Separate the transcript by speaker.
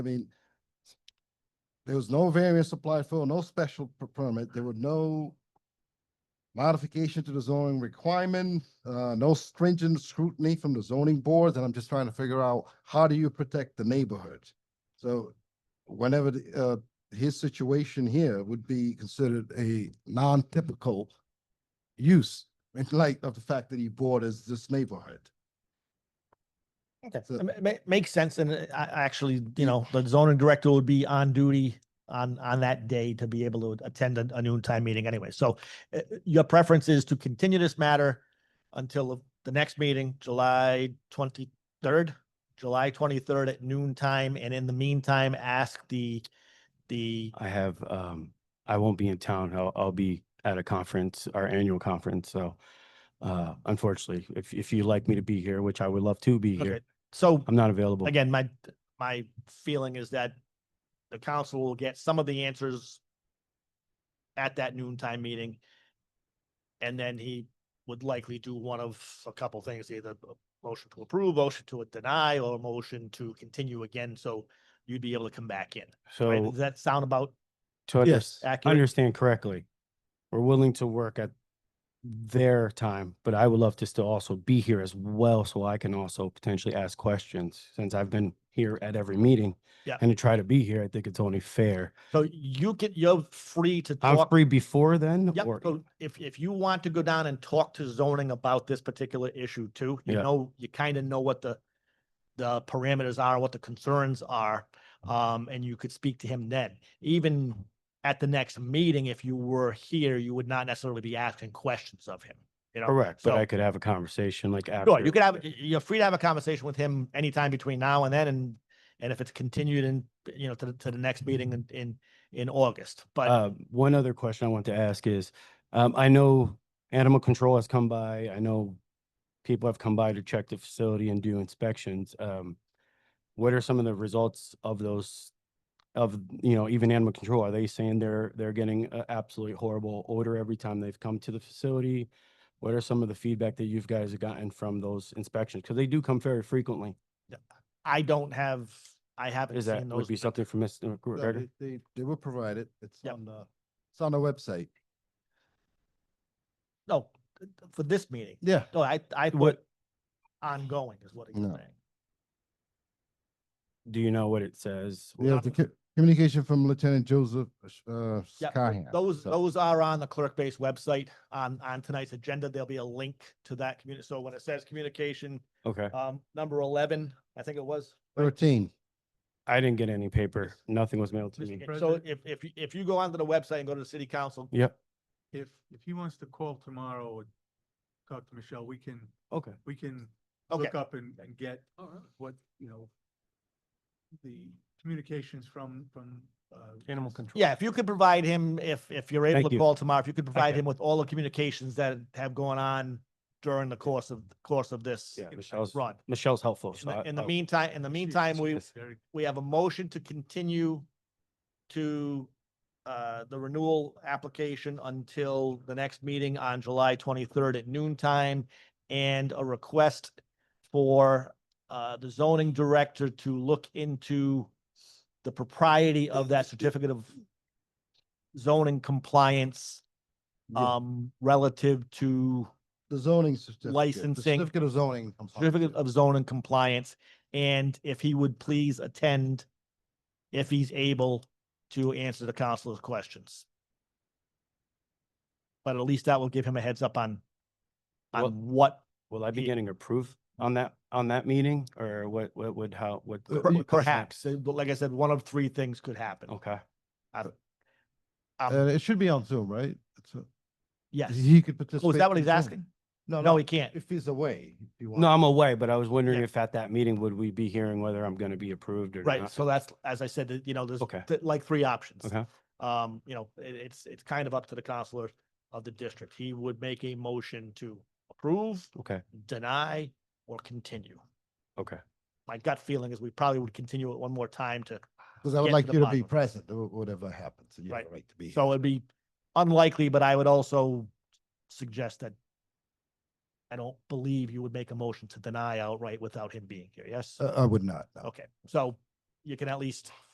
Speaker 1: I mean, there was no variance applied for, no special per- permit, there were no modification to the zoning requirement, uh, no stringent scrutiny from the zoning board, and I'm just trying to figure out how do you protect the neighborhood? So whenever, the, uh, his situation here would be considered a non-typical use in light of the fact that he borders this neighborhood.
Speaker 2: Okay,
Speaker 1: So-
Speaker 2: it ma- ma- makes sense, and uh, I, I actually, you know, the zoning director would be on duty on, on that day to be able to attend a, a noontime meeting anyway, so uh, uh, your preference is to continue this matter until the next meeting, July twenty-third? July twenty-third at noon time, and in the meantime, ask the, the,
Speaker 3: I have, um, I won't be in town. I'll, I'll be at a conference, our annual conference, so. Uh, unfortunately, if, if you'd like me to be here, which I would love to be
Speaker 2: Okay,
Speaker 3: here,
Speaker 2: so
Speaker 3: I'm not available.
Speaker 2: again, my, my feeling is that the council will get some of the answers at that noontime meeting. And then he would likely do one of a couple things, either a motion to approve, motion to deny, or a motion to continue again, so you'd be able to come back in. Right?
Speaker 3: So
Speaker 2: Does that sound about
Speaker 3: to under-
Speaker 2: Yes. accurate?
Speaker 3: understand correctly, we're willing to work at their time, but I would love to still also be here as well, so I can also potentially ask questions, since I've been here at every meeting.
Speaker 2: Yeah.
Speaker 3: And to try to be here, I think it's only fair.
Speaker 2: So you can, you're free to
Speaker 3: I'm
Speaker 2: talk.
Speaker 3: free before then,
Speaker 2: Yep,
Speaker 3: or,
Speaker 2: so if, if you want to go down and talk to zoning about this particular issue too, you
Speaker 3: Yeah.
Speaker 2: know, you kind of know what the, the parameters are, what the concerns are, um, and you could speak to him then. Even at the next meeting, if you were here, you would not necessarily be asking questions of him, you know?
Speaker 3: correct, but
Speaker 2: so-
Speaker 3: I could have a conversation like after.
Speaker 2: Sure, you could have, y- you're free to have a conversation with him anytime between now and then, and, and if it's continued in, you know, to, the- to the next meeting in, in, in August, but
Speaker 3: Uh, one other question I want to ask is, um, I know animal control has come by, I know people have come by to check the facility and do inspections. Um, what are some of the results of those, of, you know, even animal control? Are they saying they're, they're getting a absolutely horrible odor every time they've come to the facility? What are some of the feedback that you've guys have gotten from those inspections? Because they do come very frequently.
Speaker 2: I don't have, I haven't
Speaker 3: Is that,
Speaker 2: seen
Speaker 3: would
Speaker 2: those.
Speaker 3: be something for Mr.
Speaker 1: No,
Speaker 3: McGregor?
Speaker 1: They, they- they were provided. It's
Speaker 2: Yep.
Speaker 1: on the, it's on the website.
Speaker 2: No, th- th- for this meeting.
Speaker 1: Yeah.
Speaker 2: No, I, I put
Speaker 3: What-
Speaker 2: ongoing is what he's
Speaker 1: No.
Speaker 2: saying.
Speaker 3: Do you know what it says?
Speaker 1: We have the co- communication from Lieutenant Joseph, uh,
Speaker 2: Yeah,
Speaker 1: Callahan.
Speaker 2: Those,
Speaker 1: So-
Speaker 2: those are on the clerk based website. On, on tonight's agenda, there'll be a link to that community. So when it says communication,
Speaker 3: Okay.
Speaker 2: um, number eleven, I think it was.
Speaker 1: Thirteen.
Speaker 3: I didn't get any paper. Nothing was mailed to
Speaker 2: Mr.
Speaker 3: me.
Speaker 2: Ga- So if, if, you- if you go onto the website and go to the city council,
Speaker 3: Yep.
Speaker 4: If, if he wants to call tomorrow or talk to Michelle, we can,
Speaker 3: Okay.
Speaker 4: we can
Speaker 2: okay,
Speaker 4: look up and, and get what, you know, the communications from, from, uh. Animal control.
Speaker 2: yeah, if you could provide him, if, if you're able
Speaker 3: Thank
Speaker 2: to
Speaker 3: you.
Speaker 2: call tomorrow, if you could provide
Speaker 3: Okay.
Speaker 2: him with all the communications that have gone on during the course of, course of this
Speaker 3: Yeah, Michelle's,
Speaker 2: run.
Speaker 3: Michelle's helpful.
Speaker 2: In
Speaker 3: so I-
Speaker 2: the, in the
Speaker 3: I'll-
Speaker 2: meantime, in the meantime, we,
Speaker 4: Very
Speaker 2: we have a motion to continue to uh, the renewal application until the next meeting on July twenty-third at noon time and a request for uh, the zoning director to look into the propriety of that certificate of zoning compliance
Speaker 1: Yeah,
Speaker 2: um, relative to
Speaker 1: The zoning certificate. the
Speaker 2: licensing-
Speaker 1: Certificate of zoning. I'm sorry.
Speaker 2: certificate of zoning compliance, and if he would please attend if he's able to answer the council's questions. But at least that will give him a heads up on,
Speaker 3: Well-
Speaker 2: on what
Speaker 3: Will I be
Speaker 2: Yeah.
Speaker 3: getting approved on that, on that meeting or what, what would, how, what?
Speaker 1: Uh, you-
Speaker 3: what-
Speaker 2: per-
Speaker 3: what comes next?
Speaker 2: perhaps, uh, but like I said, one of three things could happen.
Speaker 3: Okay.
Speaker 1: Uh, it should be on Zoom, right? It's a-
Speaker 2: Yes.
Speaker 1: He could
Speaker 2: Oh,
Speaker 1: participate.
Speaker 2: is that what
Speaker 1: in
Speaker 2: he's
Speaker 1: Zoom.
Speaker 2: asking?
Speaker 1: No,
Speaker 2: No,
Speaker 1: no,
Speaker 2: he can't.
Speaker 1: if he's away, if you want.
Speaker 3: No, I'm away, but I was wondering
Speaker 2: Yeah.
Speaker 3: if at that meeting, would we be hearing whether I'm going to be approved or
Speaker 2: Right,
Speaker 3: not?
Speaker 2: so that's, as I said, that, you know, there's
Speaker 3: Okay.
Speaker 2: th- like three options.
Speaker 3: Okay.
Speaker 2: Um, you know, it, it's, it's kind of up to the counselor of the district. He would make a motion to approve,
Speaker 3: Okay.
Speaker 2: deny, or continue.
Speaker 3: Okay.
Speaker 2: my gut feeling is we probably would continue it one more time to,
Speaker 1: Because I would
Speaker 2: get
Speaker 1: like
Speaker 2: to the
Speaker 1: you to
Speaker 2: bottom
Speaker 1: be
Speaker 2: of it.
Speaker 1: present, or whatever happens. You have
Speaker 2: Right.
Speaker 1: a right to be.
Speaker 2: so
Speaker 1: here.
Speaker 2: it'd be unlikely, but I would also suggest that I don't believe you would make a motion to deny outright without him being here, yes?
Speaker 1: Uh, I would not. no.
Speaker 2: Okay, so you can at least